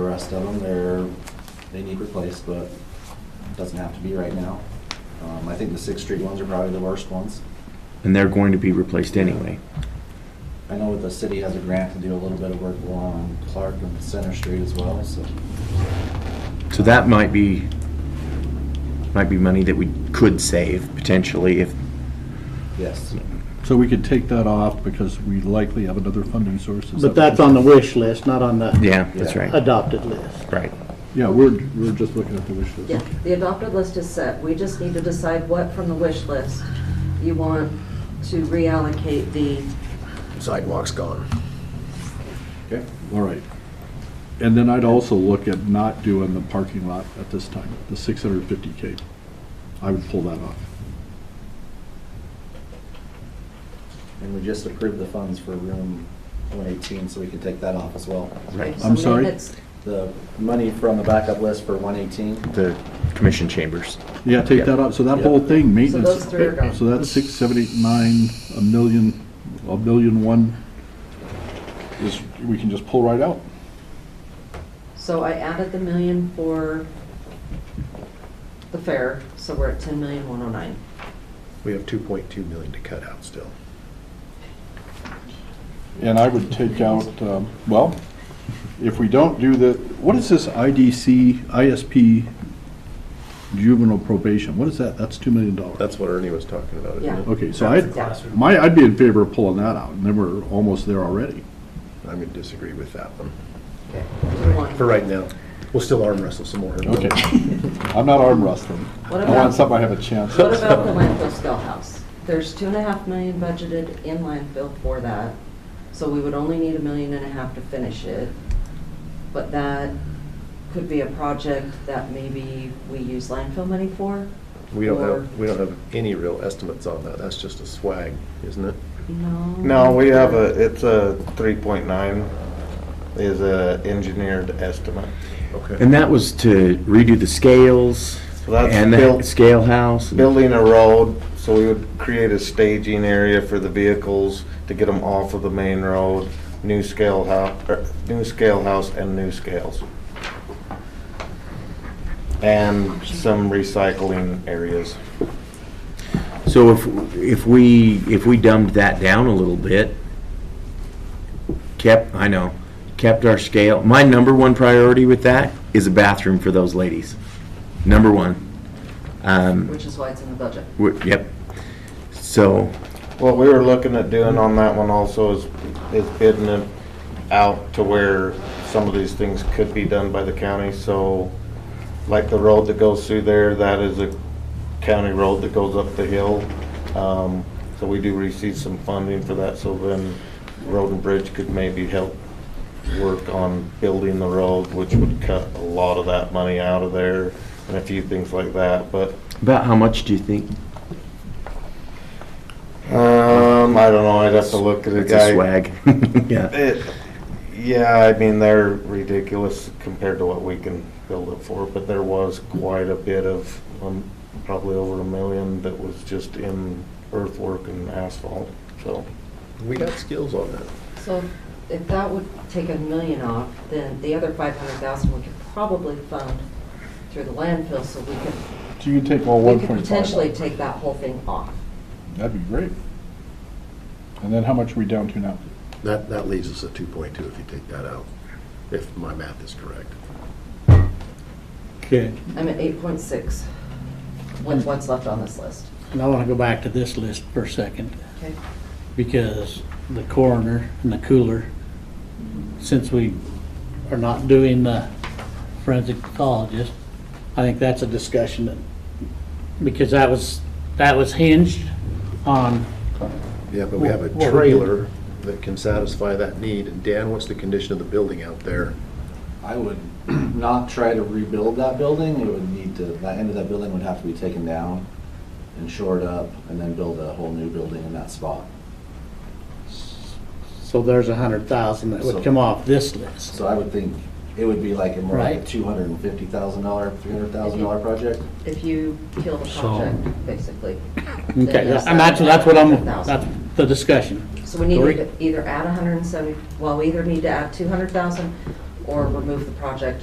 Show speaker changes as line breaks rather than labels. rest of them, they're, they need replaced, but it doesn't have to be right now. Um, I think the Sixth Street ones are probably the worst ones.
And they're going to be replaced anyway.
I know the city has a grant to do a little bit of work along Clark and Center Street as well, so.
So that might be, might be money that we could save potentially if,
Yes,
So we could take that off because we likely have another funding source. Is
But
that-
that's on the wish list, not on the
yeah, that's right,
adopted list.
right.
Yeah, we're, we're just looking at the wish list.
Yeah, the adopted list is set. We just need to decide what from the wish list you want to reallocate the,
Sidewalk's gone.
Okay, all right. And then I'd also look at not doing the parking lot at this time, the 650K. I would pull that off.
and we just approved the funds for room one eighteen, so we can take that off as well.
Right.
so
I'm sorry?
maintenance-
The money from the backup list for one eighteen,
The commission chambers.
Yeah, take
Yeah.
that out, so that
Yeah.
whole thing, maintenance.
those three are gone.
So that's six, seven, eight, nine, a million, a million one is, we can just pull right out.
So I added the million for the fair, so we're at ten million, one oh nine.
We have 2.2 million to cut out still.
And I would take out, um, well, if we don't do the, what is this IDC, ISP juvenile probation? What is that? That's $2 million.
That's what Ernie was talking about, isn't
Yeah.
it?
Okay, so I'd,
classroom.
my, I'd be in favor of pulling that out, and then we're almost there already.
I'm going to disagree with that one.
One.
For right now, we'll still arm wrestle some more.
Okay. I'm not arm wrestling.
What
I want
about-
something I have a chance.
What about the landfill scale house? There's two and a half million budgeted in landfill for that, so we would only need a million and a half to finish it. But that could be a project that maybe we use landfill money for?
We don't
or-
have, we don't have any real estimates on that. That's just a swag, isn't it?
No.
No, we have a, it's a three point nine is a engineered estimate.
Okay.
And that was to redo the scales
So that's
and the
built-
scale house.
Building a road, so we would create a staging area for the vehicles to get them off of the main road, new scale house, new scale house and new scales. And some recycling areas.
So if, if we, if we dumbed that down a little bit, kept, I know, kept our scale, my number one priority with that is a bathroom for those ladies. Number one. Um,
Which is why it's in the budget.
we- yep. So,
What we were looking at doing on that one also is, is bidding it out to where some of these things could be done by the county, so like the road that goes through there, that is a county road that goes up the hill. Um, so we do receive some funding for that, so then Road and Bridge could maybe help work on building the road, which would cut a lot of that money out of there and a few things like that, but
about how much do you think?
um, I don't know, I'd have to look at the
It's a
guy.
swag. Yeah.
It, yeah, I mean, they're ridiculous compared to what we can build it for, but there was quite a bit of, um, probably over a million that was just in earthwork and asphalt, so.
We got skills on that.
So if that would take a million off, then the other five hundred thousand we could probably fund through the landfill, so we could,
So you take all
we could
1.5.
potentially take that whole thing off.
That'd be great. And then how much are we down to now?
That, that leaves us at 2.2 if you take that out, if my math is correct.
Okay.
I'm at eight point six with what's left on this list.
And I want to go back to this list for a second,
Okay.
because the coroner and the cooler, since we are not doing the forensic pathologist, I think that's a discussion that, because that was, that was hinged on,
Yeah, but we have a
Well, well, we
trailer that can satisfy that need. And Dan, what's the condition of the building out there?
I would not try to rebuild that building, it would need to, that end of that building would have to be taken down and shored up, and then build a whole new building in that spot.
so there's a hundred thousand that
So-
would come off this list.
So I would think it would be like a more like a
Right.
two hundred and fifty thousand dollar, three hundred thousand dollar project.
If you kill the project, basically. then
Okay,
there's
and that's, that's what I'm,
100,000.
that's the discussion.
So we need to
Dory?
either add a hundred and seventy, well, we either need to add two hundred thousand or remove the project